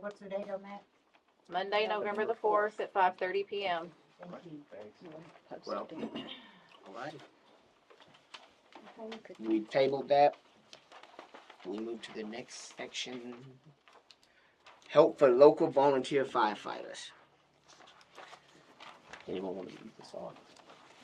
what's the date on that? Monday, November the fourth at five thirty PM. Thank you. Thanks. Well, All right, Okay. we tabled that. We move to the next section. Help for local volunteer firefighters. Anyone want to read this on?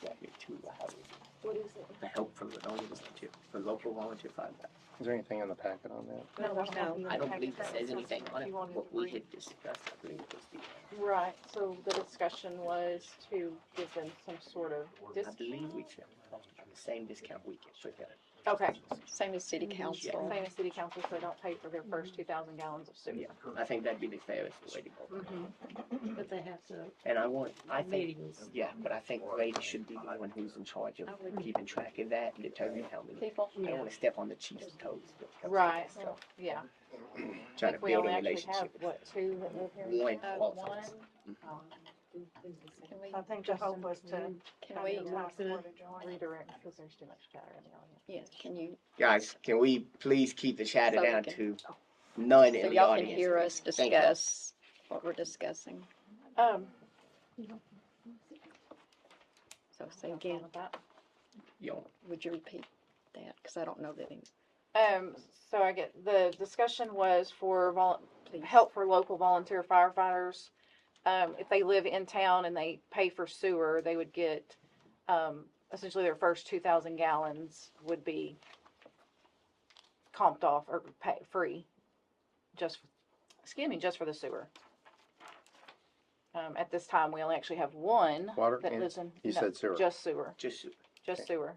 Got here too, I have it. What is it? The help for the local volunteer, for local volunteer firefighters. Is there anything in the packet on that? No, there's no. I don't believe it says anything on it, what we had discussed, I believe it was the, Right, so the discussion was to give them some sort of I discount. believe we should, the same discount we get, forget it. Okay, Same as city Mhm. council. same as city council, so they don't pay for their first two thousand gallons of Mm-hmm. Yeah, sewer. I think that'd be the fairest way to go. Mhm. But they have to, And I want, I think, meetings. yeah, but I think Grady should be the one who's in charge of keeping track of that and determining how many. People, I don't wanna step on the chief's toes. when it comes to Right, this, so yeah. Trying to Like, we build a only actually have, relationship. what, two that live here? One Mm-hmm. Uh, qualifies. one? Oh, can we, I think the hope was to. can we, Redirect, because there's too much chatter in the audience. yes, can you, Guys, can we please keep the chatter So we down can- to none so in the y'all can audience? hear us Thank you. discuss what we're discussing. Um, So say again, Y'all- would you repeat that? Because I don't know that any, Um, so I get, the discussion was for vol, please. help for local volunteer firefighters. Um, if they live in town and they pay for sewer, they would get, um, essentially their first two thousand gallons would be comped off or pay, free, just, excuse me, just for the sewer. Um, at this time, we only actually have one Water that and, lives in. you no, said sewer. Just sewer, Just, just sewer.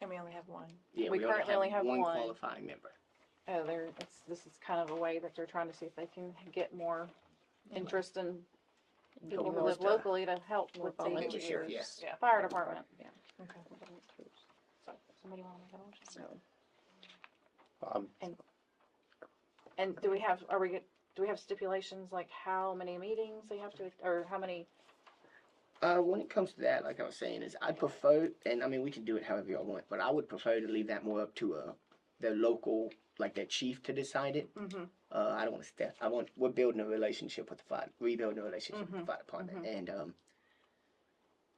And we only have one. yeah, We we currently only have one one. qualifying member. Uh, they're, it's, this is kind of a way that they're trying to see if they can get more interest in people who Locals live to- locally to help More with volunteers. the Yes. yeah, fire department. Somebody wanna make a motion? So, Um, And do we have, are we, get- do we have stipulations like how many meetings they have to, or how many? Uh, when it comes to that, like I was saying, is I prefer, and I mean, we can do it however y'all want, but I would prefer to leave that more up to uh, the local, like their chief to decide it. Mm-hmm. Uh, I don't want to step. I want we're building a relationship with the fire, rebuilding a relationship with the fire department, and um,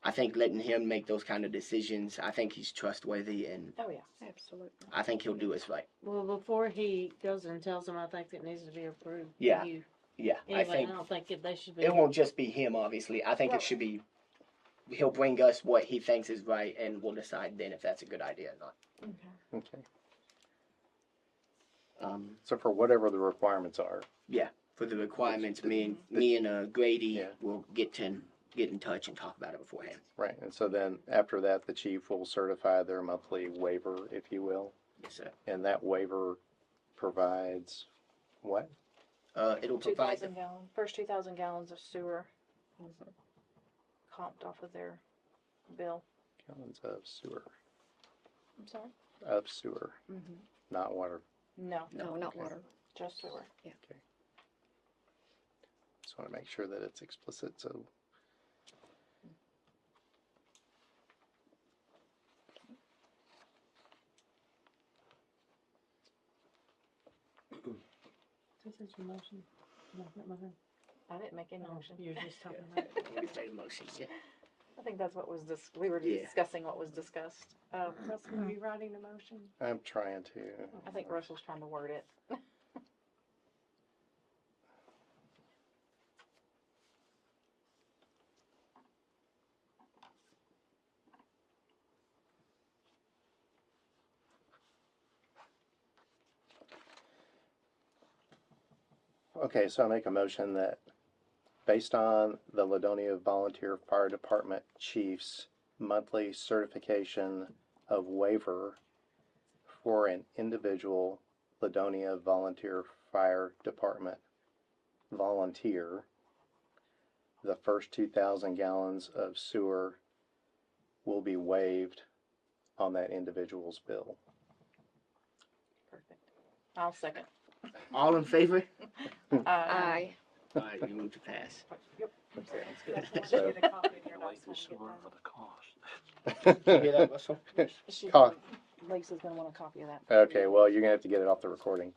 I think letting him make those kind of decisions. I think he's trustworthy, and Oh, yeah. absolutely. I think he'll do us right. Well, before he goes and tells them, I think it needs to be approved. by Yeah, you. Yeah, I Anyway, I think don't think it- they should be. it won't just be him. Obviously, I think Right. it should be. He'll bring us what he thinks is right, and we'll decide then if that's a good idea or okay. not. Um, So for whatever the requirements are, for the requirements, me and, me and uh, Grady Yeah. will get to, get in touch and talk about it beforehand. right, and so then after that, the chief will certify their monthly waiver, if you will, Yes, sir. and that waiver provides what? Uh, it'll Two provide, the- thousand gallon, first two thousand gallons of sewer comped off of their bill. Gallons of sewer, I'm sorry? of sewer, Mm-hmm. not water. No, No, not water. just sewer. Just want to make sure that it's explicit, so. This is your motion. No, not mine. I didn't make any No, motion. You're just talking about. it. we made a motion, yeah. I think that's what was this, we were Yeah. discussing what was discussed. Um, Russell, are you writing the motion? I'm trying to. I think Russell's trying to word it. Okay, so I make a motion that, based on the Ladonia Volunteer Fire Department Chief's monthly certification of waiver for an individual Ladonia Volunteer Fire Department volunteer, the first two thousand gallons of sewer will be waived on that individual's bill. Perfect. I'll second. Uh, All in favor? Aye. Aye. All right, you move to pass. So- You hear that, Russell? She's Con- gonna- Lisa's gonna want a copy of that. Okay, well, you're gonna have to get it off the recording.